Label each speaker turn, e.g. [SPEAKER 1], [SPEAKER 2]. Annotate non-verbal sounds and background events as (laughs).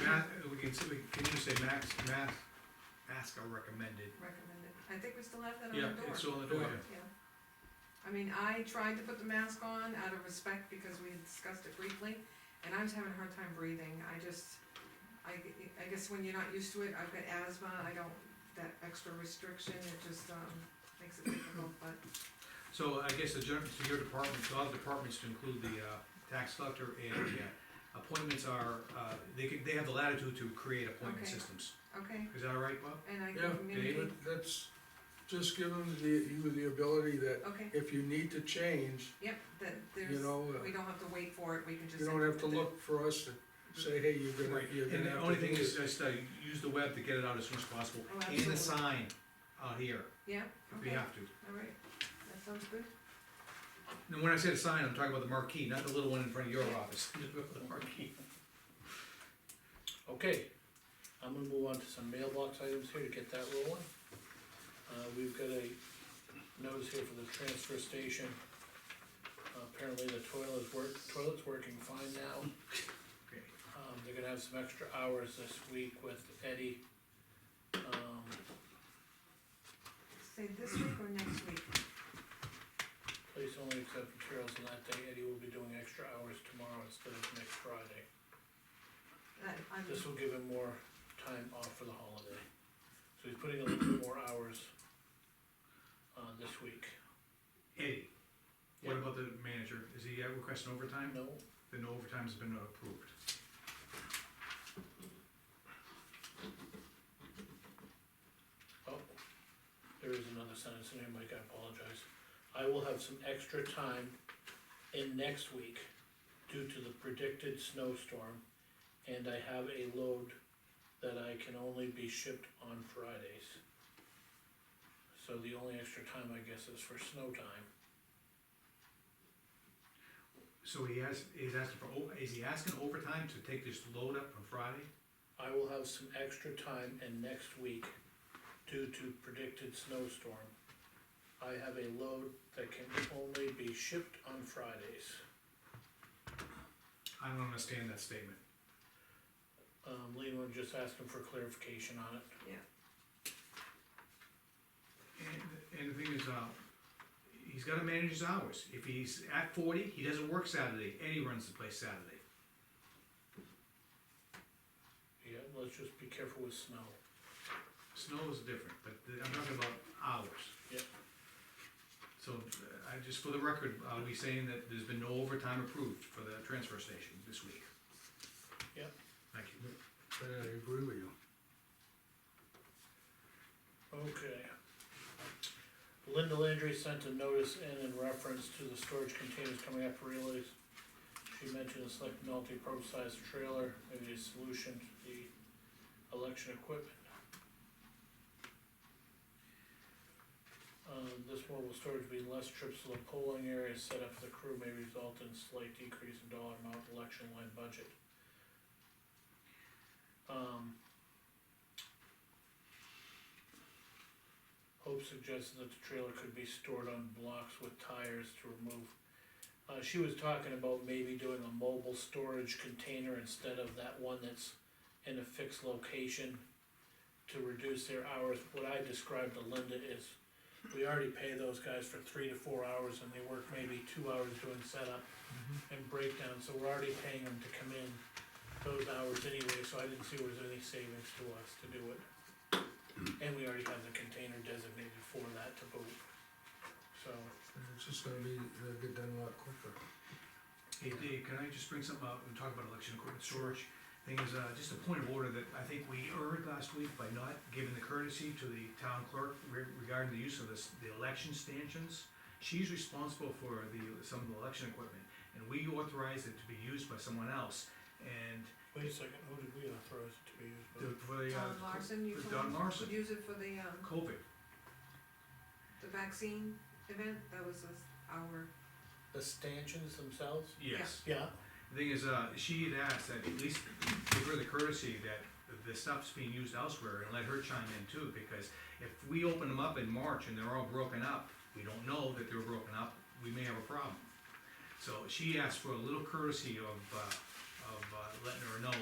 [SPEAKER 1] can, s- we- can you say max, mask, mask are recommended?
[SPEAKER 2] recommended. I think we still have that on
[SPEAKER 1] Yeah,
[SPEAKER 2] the door.
[SPEAKER 1] it's on the door,
[SPEAKER 3] Yeah.
[SPEAKER 1] yeah.
[SPEAKER 2] Yeah. I mean, I tried to put the mask on out of respect because we had discussed it briefly, and I was having a hard time breathing. I just, I, g- I guess when you're not used to it, I've got asthma, I don't, that extra restriction, it just, um, makes it difficult, but
[SPEAKER 1] So I guess the, gen- to your department, to all departments to include the, uh, tax collector and, uh, appointments are, uh, they can, they have the latitude to create appointment
[SPEAKER 2] Okay.
[SPEAKER 1] systems.
[SPEAKER 2] Okay,
[SPEAKER 1] Is that all right, Bob?
[SPEAKER 2] and I
[SPEAKER 3] Yeah,
[SPEAKER 2] can communicate,
[SPEAKER 3] But That's, just give them the, you the ability that
[SPEAKER 2] okay,
[SPEAKER 3] if you need to change,
[SPEAKER 2] yep, that,
[SPEAKER 3] you
[SPEAKER 2] there's,
[SPEAKER 3] know, uh,
[SPEAKER 2] we don't have to wait for it, we can just.
[SPEAKER 3] you don't have to
[SPEAKER 2] implement it.
[SPEAKER 3] look for us to say, hey, you're gonna,
[SPEAKER 1] Right,
[SPEAKER 3] you're gonna
[SPEAKER 1] and
[SPEAKER 3] have to.
[SPEAKER 1] the only thing
[SPEAKER 3] do
[SPEAKER 1] is
[SPEAKER 3] this."
[SPEAKER 1] just, uh, use the web to get it out as soon as possible,
[SPEAKER 2] Oh,
[SPEAKER 1] and
[SPEAKER 2] absolutely.
[SPEAKER 1] the sign out here,
[SPEAKER 2] Yeah,
[SPEAKER 1] if we
[SPEAKER 2] okay,
[SPEAKER 1] have to.
[SPEAKER 2] all right, that sounds good.
[SPEAKER 1] And when I say the sign, I'm talking about the marquee, not the little one in front of your office, (laughs) the marquee.
[SPEAKER 4] Okay, I'm gonna move on to some mailbox items here to get that rolling. Uh, we've got a notice here for the transfer station. Uh, Apparently the toilet is work, toilet's working fine now.
[SPEAKER 1] Okay.
[SPEAKER 4] Um, they're gonna have some extra hours this week with Eddie. Um,
[SPEAKER 2] Say this week or next week?
[SPEAKER 4] please only accept materials on that day. Eddie will be doing extra hours tomorrow instead of next Friday.
[SPEAKER 2] That, Uh, I'm,
[SPEAKER 4] This will give him more time off for the holiday. So he's putting a little bit more hours, uh, this week.
[SPEAKER 1] Eddie, what about the manager? Is he uh, requesting overtime?
[SPEAKER 4] No,
[SPEAKER 1] Then no overtime's been approved.
[SPEAKER 4] oh, there is another sentence in here, Mike, I apologize. I will have some extra time in next week due to the predicted snowstorm. And I have a load that I can only be shipped on Fridays. So the only extra time, I guess, is for snow time.
[SPEAKER 1] So he has, he's asking for, o- is he asking overtime to take this load up on Friday?
[SPEAKER 4] I will have some extra time in next week due to predicted snowstorm. I have a load that can only be shipped on Fridays.
[SPEAKER 1] I don't understand that statement.
[SPEAKER 4] Um, Leland just asking for clarification on it.
[SPEAKER 1] And, and the thing is, uh, he's gotta manage his hours. If he's at forty, he doesn't work Saturday, Eddie runs the place Saturday.
[SPEAKER 4] Yeah, let's just be careful with snow.
[SPEAKER 1] Snow is different, but th- I'm talking about hours.
[SPEAKER 4] Yep.
[SPEAKER 1] So, uh, I, just for the record, are we saying that there's been no overtime approved for the transfer station this week?
[SPEAKER 4] Yep.
[SPEAKER 1] Thank you.
[SPEAKER 3] But I agree with you.
[SPEAKER 4] Okay. Linda Landry sent a notice in in reference to the storage containers coming up for release. She mentioned a select multi-purpose size trailer, maybe a solution to the election equipment. Um, this mobile storage will be less trips to the polling area set up for the crew may result in slight decrease in dollar amount election line budget. Um, Hope suggested that the trailer could be stored on blocks with tires to remove. Uh, she was talking about maybe doing a mobile storage container instead of that one that's in a fixed location to reduce their hours. What I described to Linda is, we already pay those guys for three to four hours and they work maybe two hours doing setup and breakdown, so we're already paying them to come in those hours anyway, so I didn't see there was any savings to us to do it. And we already have the container designated for that to boot. So,
[SPEAKER 3] It's just gonna be, they'll get done a lot quicker.
[SPEAKER 1] Hey Dave, can I just bring something up and talk about election equipment storage? Thing is, uh, just a point of order that I think we erred last week by not giving the courtesy to the town clerk re- regarding the use of this, the election stanchions. She's responsible for the, some of the election equipment, and we authorized it to be used by someone else. And
[SPEAKER 4] wait a second, who did we authorize it to be used by?
[SPEAKER 1] the- for the, uh,
[SPEAKER 2] Don Larson, you
[SPEAKER 1] for
[SPEAKER 2] told
[SPEAKER 1] Don
[SPEAKER 2] me,
[SPEAKER 1] Larson.
[SPEAKER 2] could use it for the, um,
[SPEAKER 1] COVID,
[SPEAKER 2] the vaccine event, that was this- our,
[SPEAKER 4] The stanchions themselves?
[SPEAKER 1] yes.
[SPEAKER 4] Yeah,
[SPEAKER 1] The Thing is, uh, she had asked that at least give her the courtesy that the stuff's being used elsewhere and let her chime in too, because if we open them up in March and they're all broken up, we don't know that they're broken up, we may have a problem. So she asked for a little courtesy of, uh, of uh, letting her know